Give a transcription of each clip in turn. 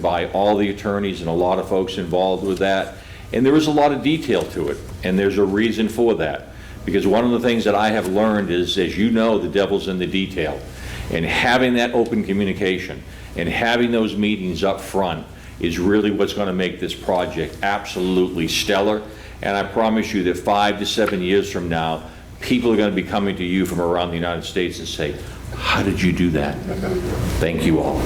by all the attorneys and a lot of folks involved with that. And there is a lot of detail to it, and there's a reason for that. Because one of the things that I have learned is, as you know, the devil's in the detail. And having that open communication and having those meetings up front is really what's going to make this project absolutely stellar. And I promise you that five to seven years from now, people are going to be coming to you from around the United States and say, "How did you do that?" Thank you all.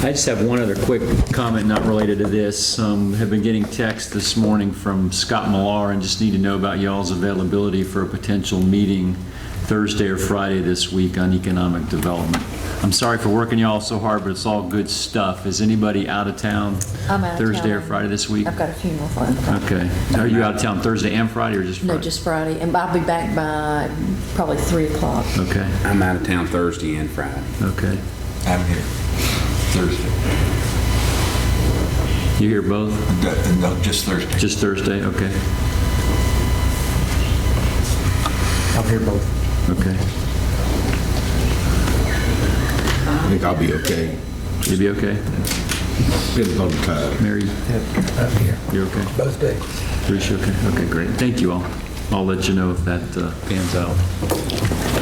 I just have one other quick comment not related to this. Um, Have been getting text this morning from Scott Millar and just need to know about y'all's availability for a potential meeting Thursday or Friday this week on economic development. I'm sorry for working y'all so hard, but it's all good stuff. Is anybody out of town? I'm out of Thursday or town. Friday this week? I've got a funeral for Okay. Are you out of town Thursday and Friday or just Friday? No, just Friday, and I'll be back by probably 3 o'clock. Okay, I'm out of town Thursday and Friday. okay. I'm here Thursday. You hear both? Th- No, just Thursday. Just Thursday? Okay, I'll hear both. okay. I think I'll be okay. You be okay? Depends on the time. Mary, Up here. you okay? Both days. Bruce, you okay? Okay, great. Thank you all. I'll let you know if that uh, pans out.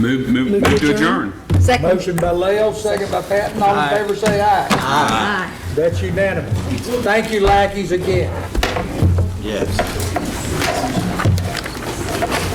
Move, move, move to adjourn. Motion by Lael, second by Patton, all in favor say aye. Aye. That's unanimous. Thank you lackeys again. Yes.